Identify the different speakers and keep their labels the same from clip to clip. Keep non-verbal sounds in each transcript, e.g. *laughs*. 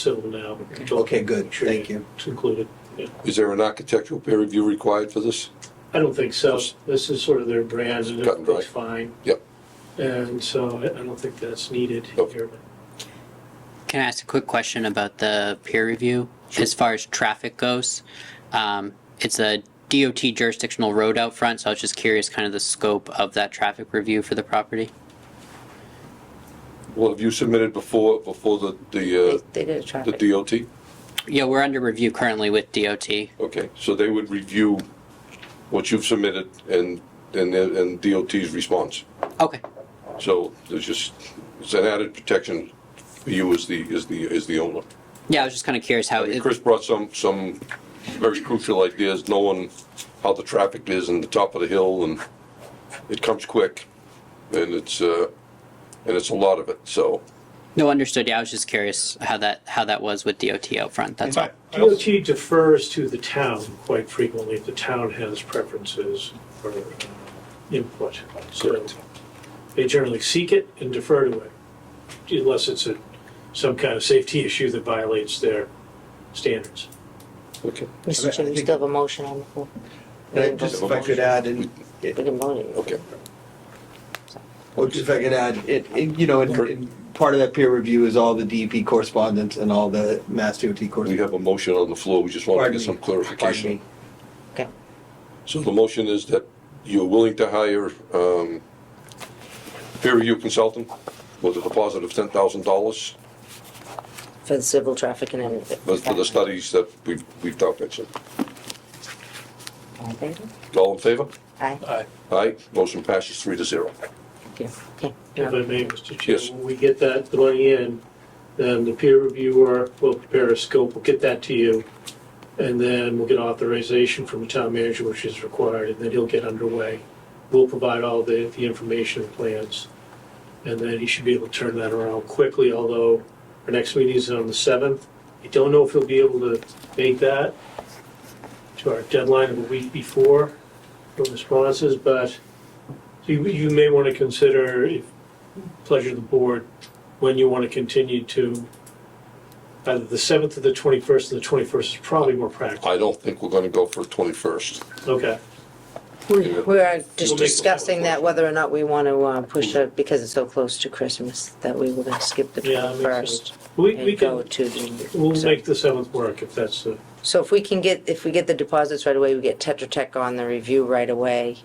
Speaker 1: civil now. to
Speaker 2: Okay, good,
Speaker 1: make sure
Speaker 2: thank you.
Speaker 1: It's included. Yeah.
Speaker 3: Is there an architectural peer review required for this?
Speaker 1: I don't think so. This is sort of their brand and
Speaker 3: Cut and dry.
Speaker 1: it's fine.
Speaker 3: Yep.
Speaker 1: And so I I don't think that's needed
Speaker 3: Nope.
Speaker 1: here.
Speaker 4: Can I ask a quick question about the peer review? As far as traffic goes, um, it's a DOT jurisdictional road out front, so I was just curious kind of the scope of that traffic review for the property.
Speaker 3: Well, have you submitted before, before the, the, uh,
Speaker 5: They did a
Speaker 3: the
Speaker 5: traffic.
Speaker 3: DOT?
Speaker 4: Yeah, we're under review currently with DOT.
Speaker 3: Okay, so they would review what you've submitted and, and, and DOT's response.
Speaker 4: Okay,
Speaker 3: So there's just, it's an added protection for you as the, as the, as the owner.
Speaker 4: yeah, I was just kind of curious how,
Speaker 3: I mean,
Speaker 4: it-
Speaker 3: Chris brought some, some very crucial ideas, knowing how the traffic is and the top of the hill and it comes quick and it's, uh, and it's a lot of it, so.
Speaker 4: no, understood, yeah, I was just curious how that, how that was with DOT out front, that's all.
Speaker 1: DOT defers to the town quite frequently. The town has preferences for uh, input. So They generally seek it and defer to it unless it's a, some kind of safety issue that violates their standards.
Speaker 3: Okay.
Speaker 5: Mr. Chair, we still have a motion on the floor. We
Speaker 2: And I-
Speaker 5: didn't
Speaker 2: Just if
Speaker 5: vote.
Speaker 2: I could add, and,
Speaker 5: We didn't vote it.
Speaker 3: Okay.
Speaker 2: or just if I could add, it, it- you know, and- and part of that peer review is all the DEP correspondence and all the Mass DOT
Speaker 3: We
Speaker 2: correspondence.
Speaker 3: have a motion on the floor, we just want to
Speaker 2: Pardon
Speaker 3: get
Speaker 2: me.
Speaker 3: some
Speaker 2: Pardon
Speaker 3: clarification.
Speaker 2: me.
Speaker 5: Okay.
Speaker 3: So the motion is that you're willing to hire, um, peer review consultant with a deposit of ten thousand dollars
Speaker 5: For the civil traffic and everything.
Speaker 3: for the studies that we've, we've talked about, so.
Speaker 5: All in favor?
Speaker 3: All in favor?
Speaker 5: Aye.
Speaker 1: Aye.
Speaker 3: Aye, motion passes three to zero.
Speaker 5: Thank you. Okay.
Speaker 1: If I may, Mr. Chair,
Speaker 3: Yes.
Speaker 1: when we get that money in, then the peer reviewer will prepare a scope, we'll get that to you. And then we'll get authorization from the town manager, which is required, and then he'll get underway. We'll provide all the, the information and plans. And then he should be able to turn that around quickly, although our next meeting is on the seventh. I don't know if he'll be able to make that to our deadline of a week before for responses, but you, you may want to consider, if pleasure of the board, when you want to continue to, either the 7th or the 21st, and the 21st is probably more practical.
Speaker 3: I don't think we're gonna go for twenty-first.
Speaker 1: Okay,
Speaker 5: We we are
Speaker 3: We'll
Speaker 5: just
Speaker 3: make-
Speaker 5: discussing that whether or not we want to uh, push it because it's so close to Christmas that we were going to skip the
Speaker 1: Yeah, that makes
Speaker 5: 21st
Speaker 1: we, we
Speaker 5: and go
Speaker 1: can,
Speaker 5: to the.
Speaker 1: we'll
Speaker 5: so-
Speaker 1: make the 7th work if that's, uh, the-
Speaker 5: So if we can get, if we get the deposits right away, we get Tetra Tech on the review right away.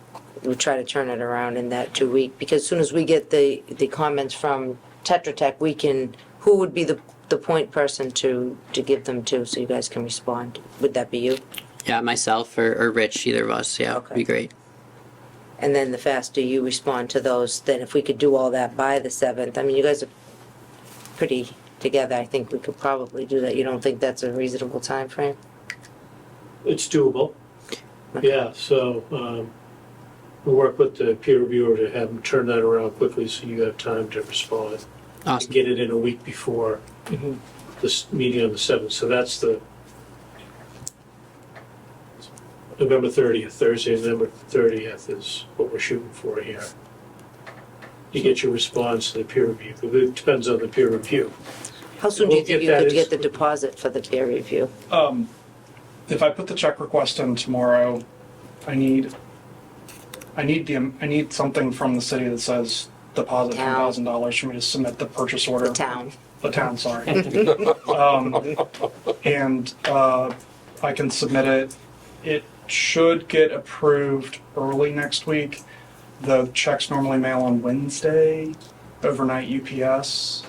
Speaker 5: We'll try to turn it around in that two week, because as soon as we get the, the comments from Tetra Tech, we can, who would be the, the point person to, to give them to, so you guys can respond? Would that be you?
Speaker 4: Yeah, myself or, or Rich, either of us, yeah, would
Speaker 5: Okay.
Speaker 4: be great.
Speaker 5: And then the faster you respond to those, then if we could do all that by the seventh, I mean, you guys are pretty together, I think we could probably do that. You don't think that's a reasonable time frame?
Speaker 1: it's doable. Yeah, so, um, we'll work with the peer reviewer to have them turn that around quickly so you have time to respond.
Speaker 4: Awesome,
Speaker 1: Get it in a week before
Speaker 5: Mhm.
Speaker 1: this meeting on the 7th, so that's the November 30th, Thursday, November 30th is what we're shooting for here. You get your response to the peer review, it depends on the peer review.
Speaker 5: How soon do you
Speaker 1: We'll
Speaker 5: think
Speaker 1: get
Speaker 5: you
Speaker 1: that
Speaker 5: could
Speaker 1: as-
Speaker 5: get the deposit for the peer review?
Speaker 6: Um, if I put the check request in tomorrow, I need, I need the, I need something from the city that says deposit ten
Speaker 5: Town.
Speaker 6: thousand dollars for me to submit the purchase order.
Speaker 5: The town?
Speaker 6: The
Speaker 5: *laughs*
Speaker 6: town, sorry. Um, and, uh, I can submit it. It should get approved early next week. The checks normally mail on Wednesday, overnight UPS,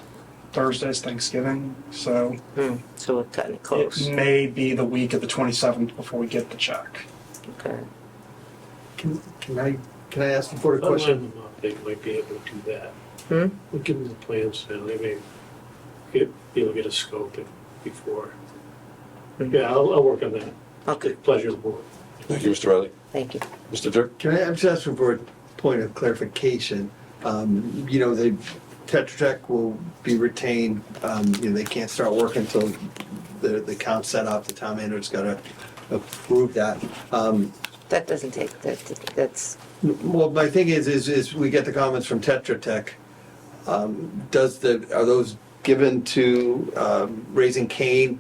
Speaker 6: Thursday's Thanksgiving, so.
Speaker 5: Hmm, so we're cutting it close.
Speaker 6: It may be the week of the 27th before we get the check.
Speaker 5: Okay.
Speaker 2: Can can I, can I ask the
Speaker 1: Oh,
Speaker 2: board a question?
Speaker 1: Online them up, They might be able to do that.
Speaker 5: Hmm?
Speaker 1: We'll give them the plans now, they may get, be able to get a scope in before. Yeah, I'll, I'll work on that.
Speaker 5: Okay,
Speaker 1: Pleasure of the board.
Speaker 3: Thank you, Mr. Riley.
Speaker 5: thank you.
Speaker 3: Mr. Dirk?
Speaker 2: Can I, I'm just asking for a point of clarification. Um, you know, the Tetra Tech will be retained, um, you know, they can't start work until the, the count's set up, the town manager's gotta approve that. Um,
Speaker 5: That doesn't take, that, that's,
Speaker 2: well, my thing is, is, is we get the comments from Tetra Tech. Um, does the, are those given to um, raising cane